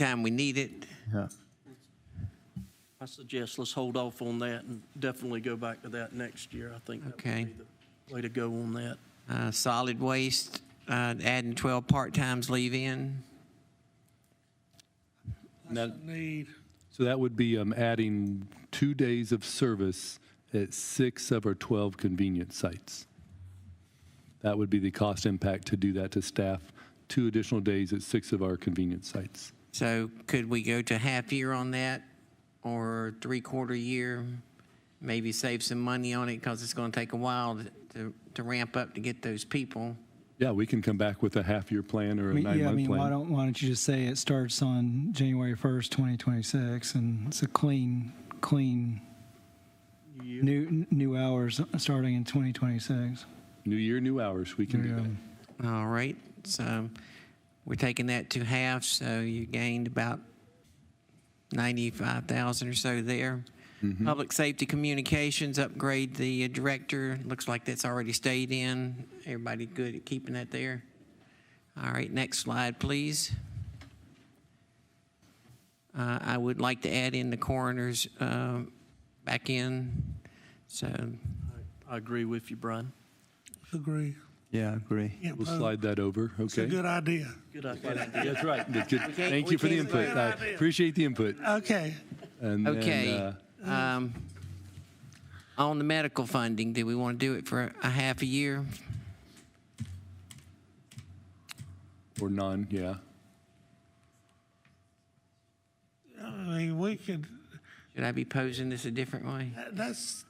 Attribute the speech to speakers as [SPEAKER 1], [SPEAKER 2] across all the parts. [SPEAKER 1] time we need it.
[SPEAKER 2] Yeah.
[SPEAKER 3] I suggest let's hold off on that and definitely go back to that next year. I think that would
[SPEAKER 1] Okay.
[SPEAKER 3] be the way to go on that.
[SPEAKER 1] Uh, Solid waste, uh, adding 12 part-times leave-in.
[SPEAKER 4] Need,
[SPEAKER 5] So that would be um, adding two days of service at six of our 12 convenience sites. That would be the cost impact to do that to staff, two additional days at six of our convenience sites.
[SPEAKER 1] So could we go to half year on that or three-quarter year? Maybe save some money on it because it's going to take a while to- to, to ramp up to get those people.
[SPEAKER 5] Yeah, we can come back with a half-year plan or
[SPEAKER 2] I
[SPEAKER 5] a
[SPEAKER 2] mean, yeah, I
[SPEAKER 5] nine-month
[SPEAKER 2] mean, why
[SPEAKER 5] plan.
[SPEAKER 2] don't, why don't you just say it starts on January 1st, 2026, and it's a clean, clean, new, new hours starting in 2026.
[SPEAKER 5] New year, new hours, we can do
[SPEAKER 2] Yeah.
[SPEAKER 5] that.
[SPEAKER 1] All right, so we're taking that to half, so you gained about 95,000 or so there. Public Safety Communications, upgrade the uh, director. Looks like that's already stayed in. Everybody good at keeping that there? All right, next slide, please. Uh, I would like to add in the coroners um, back in, so
[SPEAKER 3] I agree with you, Brian.
[SPEAKER 4] agree.
[SPEAKER 6] Yeah, I agree.
[SPEAKER 4] Yeah,
[SPEAKER 5] We'll
[SPEAKER 4] uh,
[SPEAKER 5] slide that over,
[SPEAKER 4] It's a
[SPEAKER 5] okay?
[SPEAKER 4] good idea.
[SPEAKER 3] Good idea.
[SPEAKER 5] That's right. That's good. Thank
[SPEAKER 1] we
[SPEAKER 5] you for the
[SPEAKER 1] can't-
[SPEAKER 5] input. I
[SPEAKER 4] idea.
[SPEAKER 5] appreciate the input.
[SPEAKER 4] Okay.
[SPEAKER 5] And then,
[SPEAKER 1] Okay.
[SPEAKER 5] uh,
[SPEAKER 1] um, On the medical funding, do we want to do it for a half a year?
[SPEAKER 5] Or none, yeah.
[SPEAKER 4] I mean, we could,
[SPEAKER 1] Should I be posing this a different way?
[SPEAKER 4] that- that's,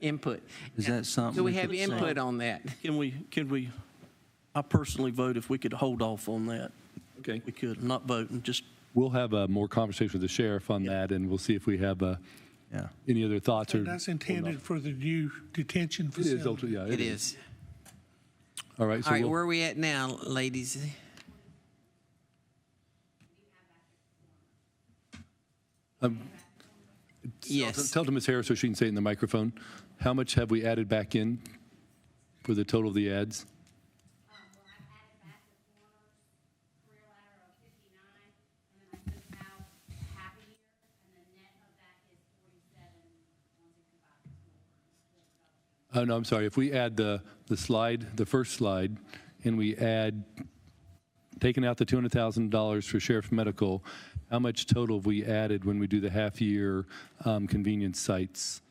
[SPEAKER 1] Input.
[SPEAKER 6] Is that something?
[SPEAKER 1] Do we have
[SPEAKER 6] could say?
[SPEAKER 1] input on that?
[SPEAKER 3] Can we, can we, I personally vote if we could hold off on that.
[SPEAKER 5] Okay.
[SPEAKER 3] We could not vote and just,
[SPEAKER 5] We'll have uh, more conversation with the sheriff on that, and we'll see if we have uh,
[SPEAKER 6] Yeah.
[SPEAKER 5] any other thoughts or.
[SPEAKER 4] that's
[SPEAKER 5] or
[SPEAKER 4] intended
[SPEAKER 5] not.
[SPEAKER 4] for the new detention
[SPEAKER 5] It is,
[SPEAKER 4] facility.
[SPEAKER 5] ultimately, yeah.
[SPEAKER 1] It is.
[SPEAKER 5] All right,
[SPEAKER 1] All
[SPEAKER 5] so
[SPEAKER 1] right,
[SPEAKER 5] we'll-
[SPEAKER 1] where are we at now, ladies?
[SPEAKER 5] tell-
[SPEAKER 1] Yes,
[SPEAKER 5] Um, tell to Ms. Harris so she can say it in the microphone, how much have we added back in for the total of the ads?
[SPEAKER 7] Um, well, I've added back the corners, career ladder of fifty-nine, and then I took out half a year, and the net of that is forty-seven, one sixty-five.
[SPEAKER 5] Oh, no, I'm sorry, if we add the, the slide, the first slide, and we add, taking out the $200,000 for sheriff's medical, how much total have we added when we do the half-year um, convenience sites?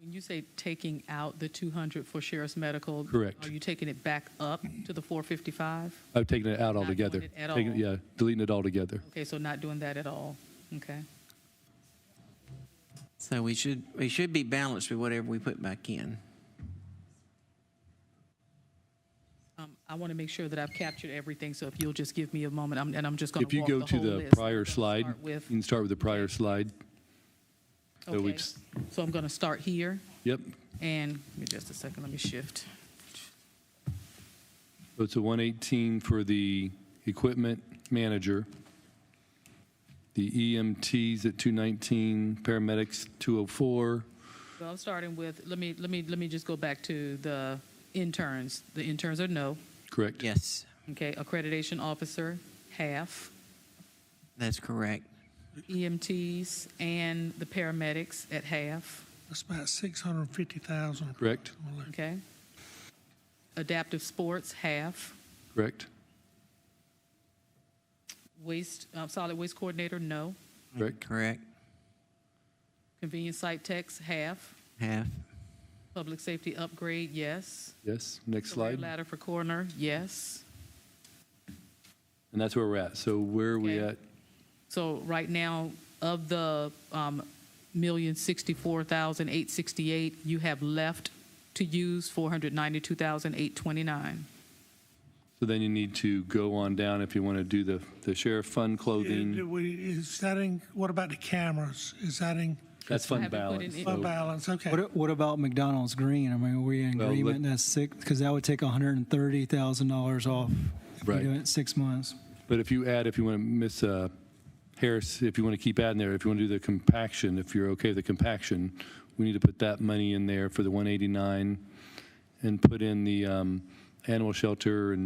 [SPEAKER 8] When you say taking out the 200 for sheriff's medical?
[SPEAKER 5] Correct.
[SPEAKER 8] Are you taking it back up to the 455?
[SPEAKER 5] I've taken Oh, it out
[SPEAKER 8] Not doing
[SPEAKER 5] altogether.
[SPEAKER 8] it at
[SPEAKER 5] Taking-
[SPEAKER 8] all.
[SPEAKER 5] Yeah, deleting it altogether.
[SPEAKER 8] Okay, so not doing that at all? Okay.
[SPEAKER 1] so we should, we should be balanced with whatever we put back in.
[SPEAKER 8] Um, I want to make sure that I've captured everything, so if you'll just give me a moment, I'm- and I'm just going
[SPEAKER 5] If
[SPEAKER 8] to
[SPEAKER 5] you
[SPEAKER 8] walk the
[SPEAKER 5] go
[SPEAKER 8] whole list.
[SPEAKER 5] to the prior
[SPEAKER 8] I'm gonna
[SPEAKER 5] slide,
[SPEAKER 8] start
[SPEAKER 5] you
[SPEAKER 8] with-
[SPEAKER 5] can start with the prior slide. so we
[SPEAKER 8] okay.
[SPEAKER 5] just-
[SPEAKER 8] So I'm going to start here,
[SPEAKER 5] Yep,
[SPEAKER 8] and, give me just a second, let me shift.
[SPEAKER 5] so it's a 118 for the equipment manager, the EMTs at 219, paramedics 204,
[SPEAKER 8] Well, I'm starting with, let me, let me, let me just go back to the interns. The interns are no,
[SPEAKER 5] correct?
[SPEAKER 1] Yes,
[SPEAKER 8] okay? Accreditation officer, half.
[SPEAKER 1] that's correct.
[SPEAKER 8] EMTs E and the paramedics at half,
[SPEAKER 4] That's about 650,000.
[SPEAKER 5] Correct,
[SPEAKER 8] okay? Adaptive sports, half.
[SPEAKER 5] correct,
[SPEAKER 8] Waste, uh, solid waste coordinator, no.
[SPEAKER 5] correct,
[SPEAKER 1] Correct,
[SPEAKER 8] Convenience site techs, half.
[SPEAKER 1] half,
[SPEAKER 8] Public safety upgrade, yes.
[SPEAKER 5] yes, next
[SPEAKER 8] Career
[SPEAKER 5] slide.
[SPEAKER 8] Ladder for coroner, yes.
[SPEAKER 5] And that's where we're at, so where are we
[SPEAKER 8] Okay.
[SPEAKER 5] at?
[SPEAKER 8] So right now, of the um, million sixty-four thousand eight sixty-eight, you have left to use four hundred ninety-two thousand eight twenty-nine.
[SPEAKER 5] So then you need to go on down if you want to do the the sheriff fund
[SPEAKER 4] Do
[SPEAKER 5] clothing,
[SPEAKER 4] we, is that in, what about the cameras? Is that in
[SPEAKER 5] that's fund
[SPEAKER 8] Have you put in
[SPEAKER 5] balance.
[SPEAKER 8] any-
[SPEAKER 4] fund
[SPEAKER 5] so-
[SPEAKER 4] balance? Okay.
[SPEAKER 2] What, what about McDonald's Green? I mean, are we in
[SPEAKER 5] Well, let-
[SPEAKER 2] agreement that's six, because that would take $130,000 off if we
[SPEAKER 5] Right.
[SPEAKER 2] do it six months.
[SPEAKER 5] But if you add, if you want to miss uh, Harris, if you want to keep adding there, if you want to do the compaction, if you're okay with the compaction, we need to put that money in there for the 189 and put in the um, animal shelter and